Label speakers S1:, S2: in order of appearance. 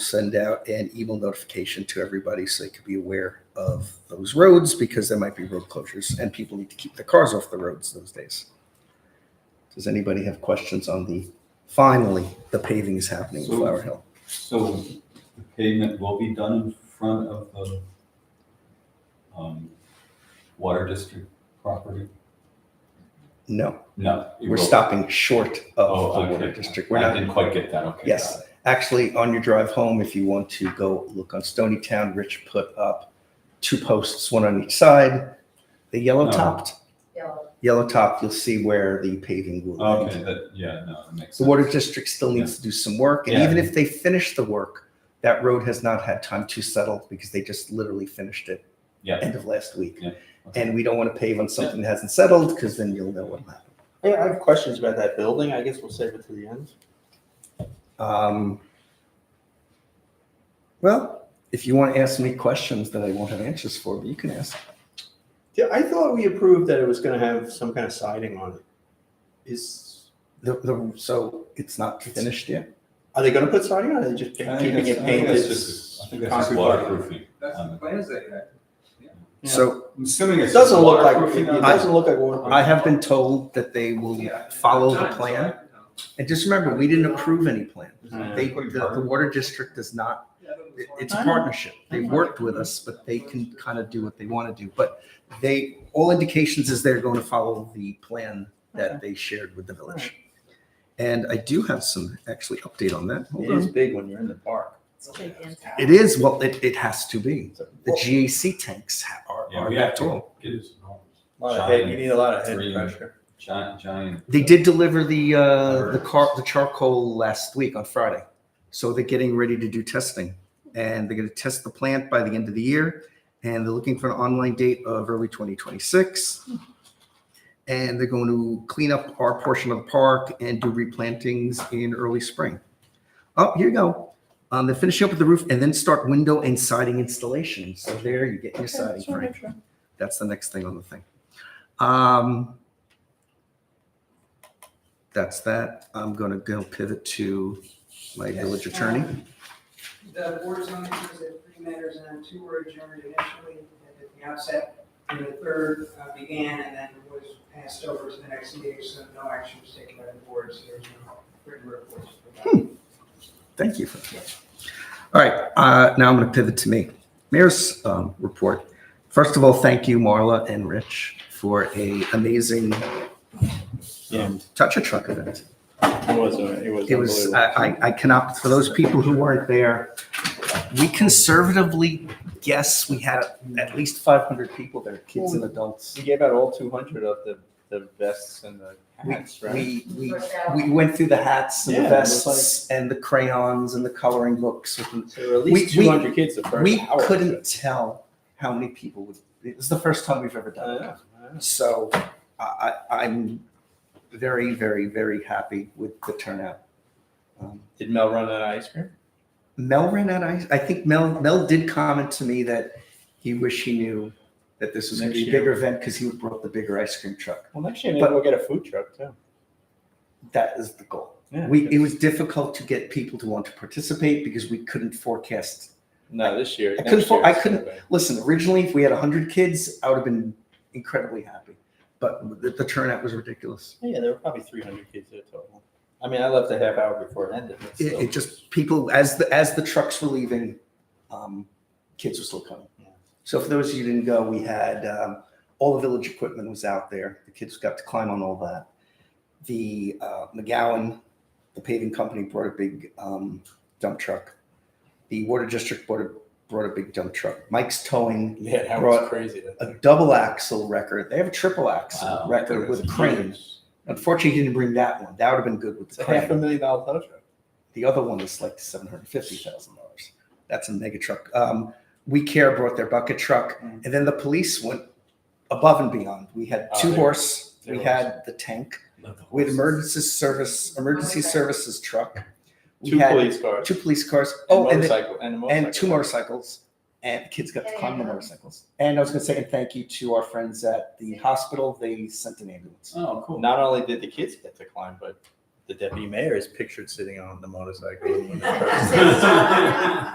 S1: send out an email notification to everybody so they could be aware of those roads because there might be road closures and people need to keep their cars off the roads those days. Does anybody have questions on the, finally, the paving is happening in
S2: So-
S1: Flower Hill?
S2: So the pavement will be done in front of the um, water district property?
S1: No,
S2: No. it
S1: we're
S2: will-
S1: stopping short of
S2: Oh,
S1: the water
S2: okay.
S1: district. We're
S2: I
S1: not,
S2: didn't quite get that, okay.
S1: Yes.
S2: got it.
S1: actually, on your drive home, if you want to go look on Stony Town, Rich put up two posts, one on each side. The yellow
S2: No.
S1: topped,
S3: yellow.
S1: yellow top, you'll see where the paving will end.
S2: Okay, that, yeah, no, that makes sense.
S1: The water district still needs to do some work, and
S2: Yeah.
S1: even if they finish the work, that road has not had time to settle because they just literally finished it
S2: Yeah.
S1: end of last week.
S2: Yeah.
S1: And we don't want to pave on something that hasn't settled because then you'll know what happened.
S4: Yeah, I have questions about that building. I guess we'll save it to the end.
S1: Um, well, if you want to ask me questions that I won't have answers for, but you can ask.
S4: Yeah, I thought we approved that it was gonna have some kind of siding on it. Is,
S1: The, the, so it's not finished yet.
S4: are they gonna put siding on it? They're Just
S2: I think
S4: keeping
S2: that's-
S4: it
S2: I think
S4: painted?
S2: that's just- I think that's just
S4: concrete block?
S2: waterproofing.
S5: That's
S1: Um,
S5: the plans that you had.
S4: Yeah.
S1: So
S5: I'm assuming
S4: It
S5: it's.
S4: doesn't look like,
S5: waterproofing
S4: it
S5: on the-
S4: doesn't look like one.
S1: I have been told that they will
S5: Yeah.
S1: follow the
S5: Time, so
S1: plan.
S5: I- no.
S1: And just remember, we didn't approve any plan.
S4: Yeah.
S1: They, the, the water district does not it- it's a
S4: I know.
S1: partnership. They worked with us, but they can kind of do what they want to do. But they, all indications is they're going to follow the plan that they shared with the village. And I do have some actually update on that. Hold
S4: It is
S1: on.
S4: big when you're in the park.
S3: It's gigantic.
S1: It is, well, it, it has to be.
S4: It's a-
S1: The GAC tanks ha- are,
S2: Yeah,
S1: are
S2: we
S1: that
S2: have to
S1: tall.
S2: get this wrong.
S4: Lot of head, you need a lot of head
S2: Green.
S4: pressure.
S2: Giant, giant.
S1: They did deliver the, uh, the
S2: Birds.
S1: car, the charcoal last week on Friday. So they're getting ready to do testing and they're going to test the plant by the end of the year. And they're looking for an online date of early 2026. And they're going to clean up our portion of the park and do replantings in early spring. Oh, here you go. Um, they're finishing up with the roof and then start window and siding installation. So there you get your siding, Frank. That's the next thing on the thing. Um, that's that. I'm gonna go pivot to my village attorney.
S6: The board of zoning is that three matters and two were adjourned initially at the outset, and the third uh, began and then was passed over to the next meeting, so no action was taken by the board, so there's no written reports.
S1: Thank you. for that. All right, uh, now I'm gonna pivot to me. Mayor's, um, report. First of all, thank you, Marla and Rich, for a amazing um,
S4: Yeah.
S1: touch a truck event.
S4: It was, a- it was. uh,
S1: It was, I,
S4: unbelievable.
S1: I- I cannot, for those people who weren't there, we conservatively guess we had at least 500 people there, kids and adults.
S4: We gave out all two hundred of the, the vests and the hats, right?
S1: We, we, we went through the hats and the
S4: Yeah, it was
S1: vests and the crayons and the coloring books. with-
S4: So there were at
S1: we-
S4: least
S1: we-
S4: two hundred kids the first hour.
S1: We
S4: of
S1: couldn't
S4: it.
S1: tell how many people would, it was the first time we've ever
S4: I know,
S1: done it.
S4: I know.
S1: So I, I, I'm very, very, very happy with the turnout. Um,
S4: Did Mel run out of ice cream?
S1: Mel ran out. I, I think Mel Mel did comment to me that he wished he knew that this was going to be a
S4: Next year.
S1: bigger event because he brought the bigger ice cream truck.
S4: Well, next year maybe
S1: But-
S4: we'll get a food truck too.
S1: That is the goal.
S4: Yeah.
S1: We it was difficult to get people to want to participate because we couldn't forecast.
S4: no this year.
S1: I couldn't
S4: next
S1: fo-
S4: year
S1: I
S4: it's gonna
S1: couldn't- Listen, originally if we had hundred kids, I would have been incredibly happy, but the, the turnout was ridiculous.
S4: be- Yeah, there were probably three hundred kids there total. I mean, I left a half hour before it ended. but
S1: It,
S4: still.
S1: it just people as the as the trucks were leaving, um, kids were still coming.
S4: Yeah.
S1: So for those of you who didn't go, we had um, all the village equipment was out there. The kids got to climb on all that. The uh, McGowan, the paving company, brought a big um, dump truck. The water district brought a, brought a big dump truck. Mike's towing
S4: yeah, that
S1: brought
S4: was crazy. that-
S1: a double axle record. They have a triple axle
S2: Wow.
S1: record with a crane.
S4: It's
S1: Unfortunately, he didn't bring that one. That would have been good with the
S4: a half a
S1: crane.
S4: million dollar tow truck.
S1: The other one is like seven hundred fifty thousand dollars. That's a mega truck. Um, we care brought their bucket truck,
S4: Mm.
S1: and then the police went above and beyond. We had
S4: Oh,
S1: two
S4: they-
S1: horse.
S4: they
S1: we
S4: were
S1: had the tank. We had emergency service emergency
S3: Okay.
S1: services truck. We
S4: Two
S1: had
S4: police cars.
S1: two police cars.
S4: and
S1: Oh, and, then-
S4: motorcycle and, a
S1: and two
S4: motorcycle.
S1: motorcycles. And the kids got to climb the
S3: Yeah.
S1: motorcycles. And I was going to say and thank you to our friends at the hospital. They sent an ambulance.
S2: Oh, cool.
S4: Not only did the kids get to climb, but the deputy mayor is pictured sitting on the motorcycle. when it's-
S2: Right.